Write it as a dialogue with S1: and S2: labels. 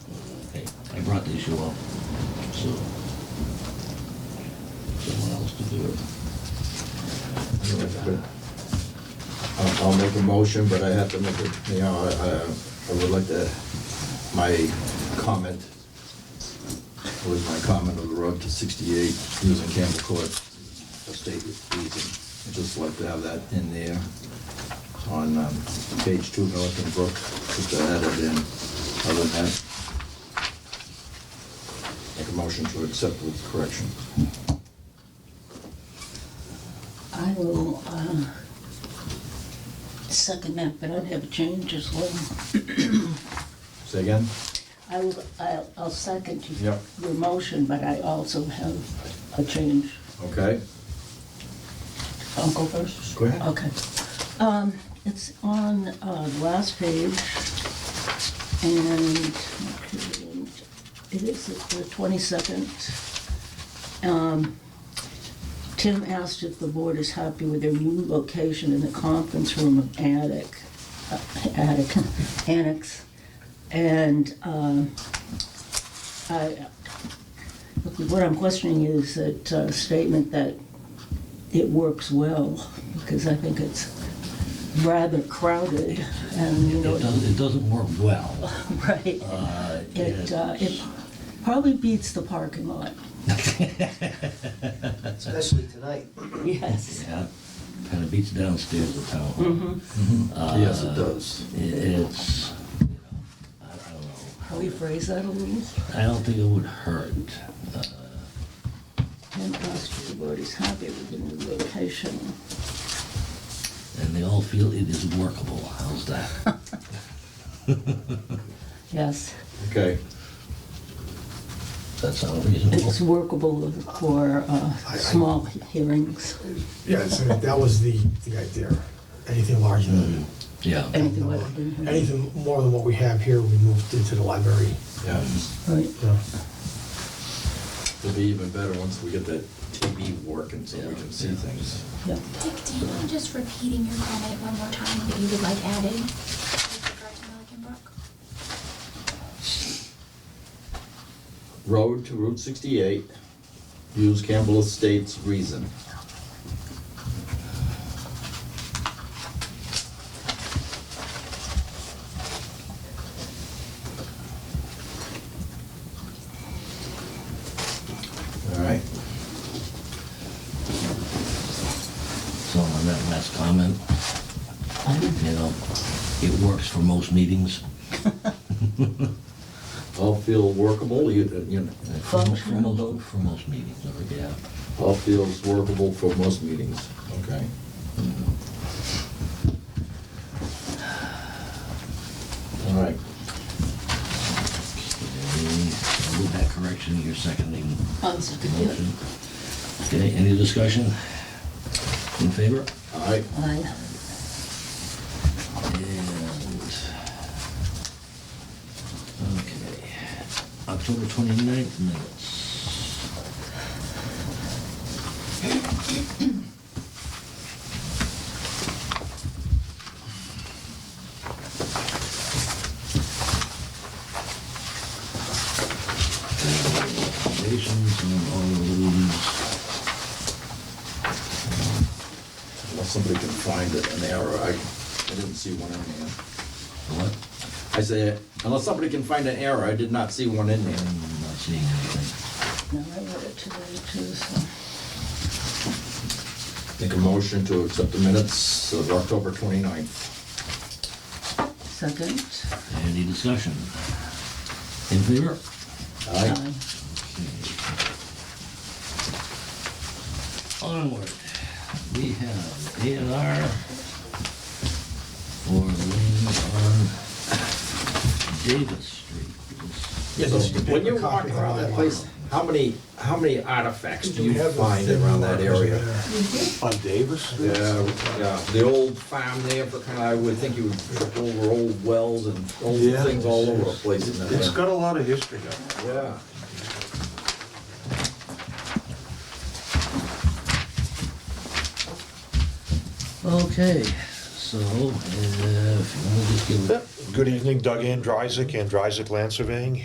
S1: I brought the issue up, so someone else could do it.
S2: I'll, I'll make a motion, but I have to make it, you know, I, I- I would like to, my comment was my comment of the road to sixty-eight using Campbell Court, a state reason. I'd just like to have that in there on, um, page two, Milliken Brook, just to add it in. Other than that, make a motion to accept with correction.
S3: I will, uh, second that, but I'd have a change as well.
S2: Say again?
S3: I will, I'll, I'll second you-
S2: Yep.
S3: your motion, but I also have a change.
S2: Okay.
S3: I'll go first?
S2: Go ahead.
S3: Okay. Um, it's on, uh, the last page, and it is the twenty-second. Um, Tim asked if the board is happy with their new location in the conference room of attic, uh, attic, annex, and, um, I, what I'm questioning is that uh, statement that it works well, because I think it's rather crowded, and you know,
S1: It doesn't, it doesn't work well.
S3: right.
S1: Uh,
S3: It, uh, it probably beats the parking lot.
S4: Especially tonight.
S3: Yes.
S1: Yeah, kind of beats downstairs the town hall.
S3: Mm-hmm.
S2: Yes, it does.
S1: It- It's, you know, I I don't know.
S3: How we phrase that a little?
S1: I don't think it would hurt. Uh,
S3: And ask the board is happy with the new location.
S1: And they all feel it is workable. How's that?
S3: Yes,
S2: Okay.
S1: That sound reasonable?
S3: it's workable for uh,
S5: I- I-
S3: small hearings,
S5: Yeah, so that was the, the idea. Anything larger than,
S2: Mm-hmm.
S1: Yeah.
S3: anything like that.
S5: anything more than what we have here, we moved into the library.
S2: Yeah.
S3: Right.
S5: you know.
S2: Um, It'll be even better once we get that TV working so we can see things.
S3: Yeah.
S6: Dick, do you mind just repeating your comment one more time that you would like added with regard to Milliken Brook?
S2: Road to Route 68, use Campbell Estates reason. All right,
S1: So on that last comment, you know, it works for most meetings.
S2: all feel workable, you, you know,
S1: For mo- for most-
S3: Functional.
S1: For most meetings, all right, yeah.
S2: all feels workable for most meetings. Okay. All right,
S1: Okay, I'll move that correction, you're seconding
S3: Oh, it's a
S1: the
S3: good
S1: motion.
S3: deal.
S1: Okay, any discussion? In favor?
S2: all right.
S3: Aye.
S1: And, okay, October 29th minutes. Recommendations on all of these.
S2: Unless somebody can find it, an error, I, I didn't see one in there.
S1: What?
S2: I say, unless somebody can find an error, I did not see one in there.
S1: I'm not seeing anything.
S3: No, I read it today too, so.
S2: Make a motion to accept the minutes of October 29th.
S3: Second.
S1: Any discussion? In favor?
S2: Aye.
S3: Aye.
S1: Onward, we have A and R for land on Davis Street.
S5: Yeah,
S2: So
S5: just a
S2: When
S5: paper
S2: you walk
S5: copy of
S2: around
S5: that
S2: that
S5: one.
S2: place, how many, how many artifacts do
S5: We
S2: you
S5: have a
S2: find
S5: thin
S2: around that
S5: margin
S2: area?
S5: there.
S7: On Davis?
S2: Yeah, yeah, the old farm there, but kind of, I would think you would trip over old wells and old
S7: Yeah.
S2: things all over the place in
S7: It's
S2: that.
S7: got a lot of history up
S2: Yeah.
S1: Okay, so, uh, if you want to just give
S7: there. Good evening, Doug Andrysik, Andrysik Land Surveying